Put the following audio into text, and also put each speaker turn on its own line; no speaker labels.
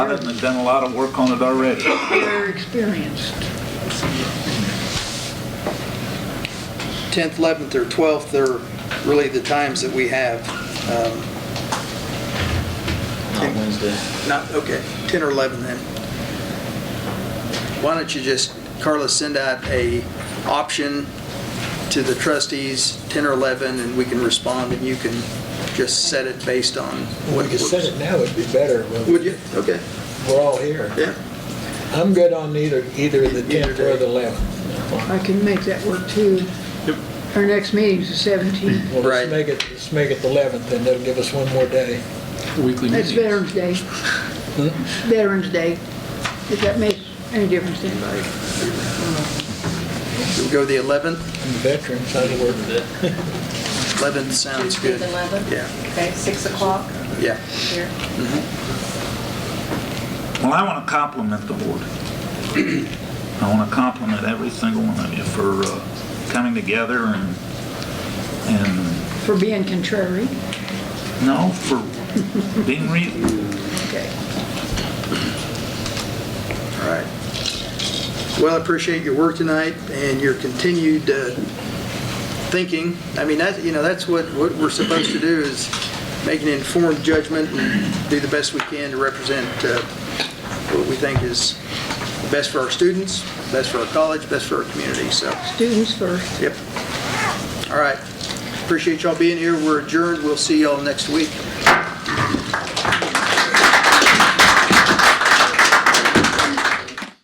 started and have done a lot of work on it already.
They're experienced.
10th, 11th, or 12th are really the times that we have. Um,
Not Wednesday.
Not, okay, 10 or 11 then. Why don't you just, Carla, send out a option to the trustees, 10 or 11, and we can respond, and you can just set it based on
When
what
you said
works.
it now, it'd be better. when
Would you? Okay,
We're all here.
yeah.
I'm good on either, either the
Either
10th or the
day.
11th.
I can make that work too. Our next meeting's the 17th.
Well,
Right.
let's make it, let's make it the 11th, and that'll give us one more day.
Weekly
That's
meetings.
Veterans Day. Veterans Day. If that makes any difference to anybody.
We'll go the 11th.
And Veterans, I'd work with
11th sounds
Tuesday,
good.
the 11th?
Yeah,
Okay, 6 o'clock
yeah.
here.
Well, I want to compliment the board. I want to compliment every single one of you for uh, coming together and, and,
For being contrary.
no, for being reasonable.
Okay.
All right. Well, I appreciate your work tonight and your continued uh, thinking. I mean, that, you know, that's what, what we're supposed to do is make an informed judgment and do the best we can to represent uh, what we think is best for our students, best for our college, best for our community, so,
Students first.
yep. All right. Appreciate y'all being here. We're adjourned. We'll see y'all next week.